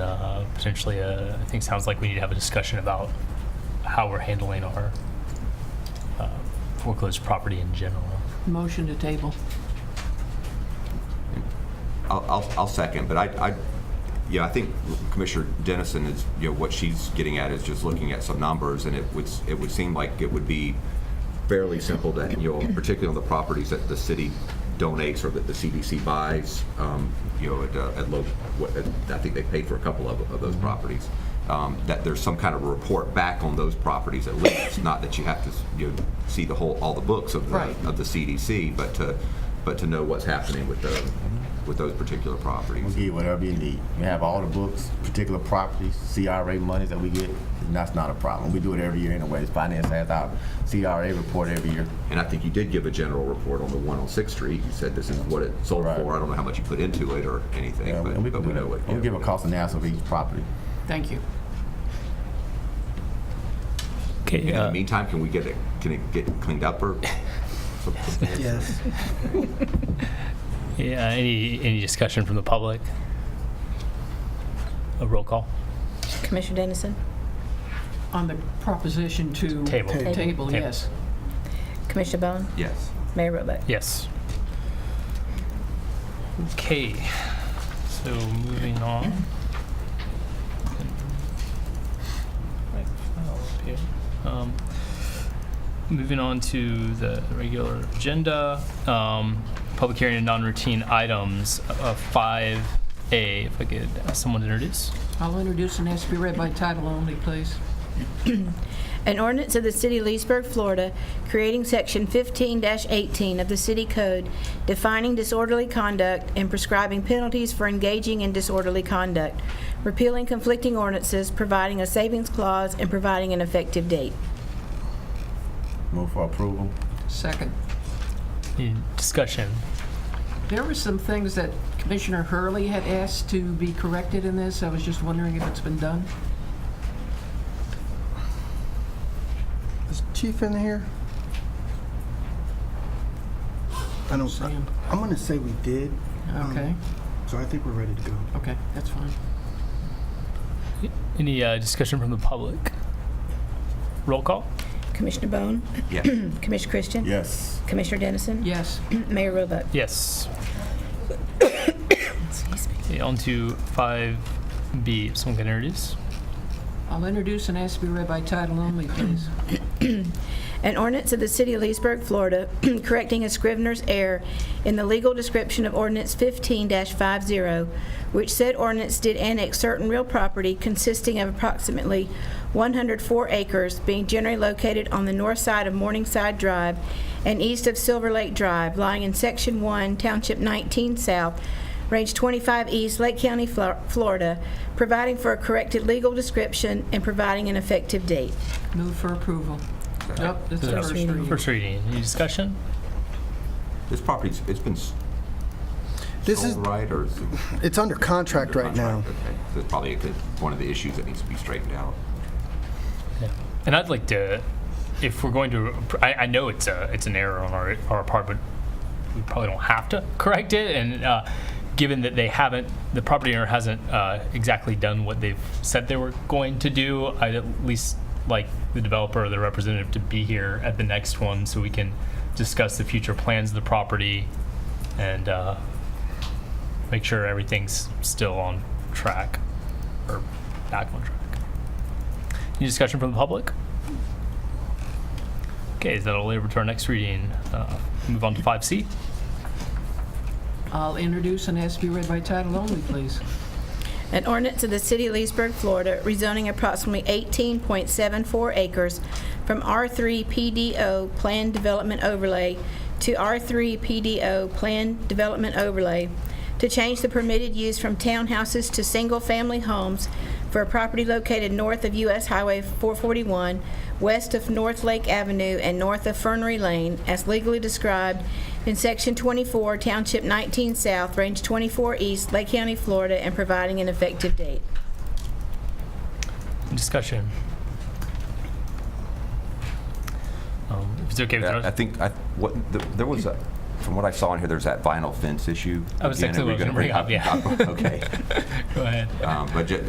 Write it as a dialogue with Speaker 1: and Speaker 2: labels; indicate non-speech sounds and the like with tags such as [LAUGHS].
Speaker 1: uh, potentially a, I think sounds like we need to have a discussion about how we're handling our uh, foreclosed property in general.
Speaker 2: Motion to table.
Speaker 3: I'll, I'll, I'll second, but I, I, yeah, I think Commissioner Dennison is, you know, what she's getting at is just looking at some numbers, and it would, it would seem like it would be fairly simple to, you know, particularly on the properties that the city donates or that the CDC buys, um, you know, at, uh, at low, what, at- I think they paid for a couple of, of those
Speaker 4: Mm-hmm.
Speaker 3: properties, um, that there's some kind of report back on those properties at least, not that you have to, you know, see the whole, all the books of the,
Speaker 2: Right.
Speaker 3: of the CDC, but to, but to know what's happening with the, with those particular
Speaker 4: We
Speaker 3: properties.
Speaker 4: get whatever you need. We have all the books, particular properties, CRA monies that we get, and that's not a problem. We do it every year anyways. Finance has our CRA report every year.
Speaker 3: And I think you did give a general report on the one on Sixth Street. You said this is what it sold
Speaker 4: Right.
Speaker 3: for. I don't know how much you put into it or anything,
Speaker 4: Yeah,
Speaker 3: but,
Speaker 4: and we
Speaker 3: but
Speaker 4: can
Speaker 3: we
Speaker 4: do
Speaker 3: know what.
Speaker 4: that. We'll
Speaker 3: yeah.
Speaker 4: give a cost analysis of each property.
Speaker 2: Thank you.
Speaker 1: Okay,
Speaker 3: In the
Speaker 1: uh,
Speaker 3: meantime, can we get it, can it get cleaned up [LAUGHS] or?
Speaker 5: Yes.
Speaker 1: yeah, any, any discussion from the public? A roll call?
Speaker 6: Commissioner Dennison,
Speaker 2: On the proposition to.
Speaker 1: Table.
Speaker 5: Table.
Speaker 2: Table, yes.
Speaker 6: Commissioner Bone,
Speaker 3: Yes.
Speaker 6: Mayor Robuck.
Speaker 1: Yes. Okay, so moving on. Right file up here. Um, Moving on to the regular agenda, um, public hearing and non-routine items, uh, 5A, if I could ask someone to introduce.
Speaker 2: I'll introduce and ask to be read by title only, please.
Speaker 6: An ordinance of the City of Leesburg, Florida, creating Section 15-18 of the City Code, defining disorderly conduct and prescribing penalties for engaging in disorderly conduct, repealing conflicting ordinances, providing a savings clause, and providing an effective date.
Speaker 4: Move for approval.
Speaker 2: Second.
Speaker 1: Any discussion?
Speaker 2: There were some things that Commissioner Hurley had asked to be corrected in this. I was just wondering if it's been done.
Speaker 5: Is Chief in here? I don't, I-
Speaker 2: Sam.
Speaker 5: I'm gonna say we did. um,
Speaker 2: Okay,
Speaker 5: So I think we're ready to go.
Speaker 2: okay, that's fine.
Speaker 1: Any uh, discussion from the public? Roll call?
Speaker 6: Commissioner Bone,
Speaker 3: Yes. [CLEARS THROAT]
Speaker 6: Commissioner Christian.
Speaker 4: Yes.
Speaker 6: Commissioner Dennison.
Speaker 2: Yes,
Speaker 6: Mayor Robuck.
Speaker 1: Yes. [COUGHS] Okay, on to 5B, if someone can introduce.
Speaker 2: I'll introduce and ask to be read by title only, please.
Speaker 6: An ordinance of the City of Leesburg, Florida, [CLEARS THROAT] correcting a scrivener's error in the legal description of ordinance 15-50, which said ordinance did annex certain real property consisting of approximately 104 acres being generally located on the north side of Morningside Drive and east of Silver Lake Drive, lying in Section 1, Township 19 South, Range 25 East, Lake County, Flor- Florida, providing for a corrected legal description and providing an effective date.
Speaker 2: Move for approval. Nope, that's the first reading.
Speaker 1: First reading. Any discussion?
Speaker 3: This property's, it's been
Speaker 5: This is,
Speaker 3: sold, right, or? is it
Speaker 5: it's under contract right now.
Speaker 3: contract? Okay. So it's probably a good- one of the issues that needs to be straightened out.
Speaker 1: Yeah. And I'd like to, if we're going to, I, I know it's a, it's an error on our, our part, but we probably don't have to correct it. And uh, given that they haven't, the property owner hasn't uh, exactly done what they've said they were going to do, I'd at least like the developer or the representative to be here at the next one so we can discuss the future plans of the property and uh, make sure everything's still on track or back on track. Any discussion from the public? Okay, is that all labor to our next reading? Uh, Move on to 5C.
Speaker 2: I'll introduce and ask to be read by title only, please.
Speaker 6: An ordinance of the City of Leesburg, Florida, rezoning approximately 18.74 acres from R3 PDO Planned Development Overlay to R3 PDO Planned Development Overlay to change the permitted use from townhouses to single-family homes for a property located north of U.S. Highway 441, west of North Lake Avenue and north of Fernery Lane, as legally described in Section 24, Township 19 South, Range 24 East, Lake County, Florida, and providing an effective date.
Speaker 1: Discussion. Um, If it's okay with
Speaker 3: Yeah, I
Speaker 1: us,
Speaker 3: think, I, what, the- there was, a- from what I saw in here, there's that vinyl fence issue.
Speaker 1: I was
Speaker 3: Again,
Speaker 1: exactly
Speaker 3: are we
Speaker 1: what I was
Speaker 3: gonna
Speaker 1: gonna bring up,
Speaker 3: Okay.
Speaker 1: go ahead.
Speaker 3: [LAUGHS] Um, But ju-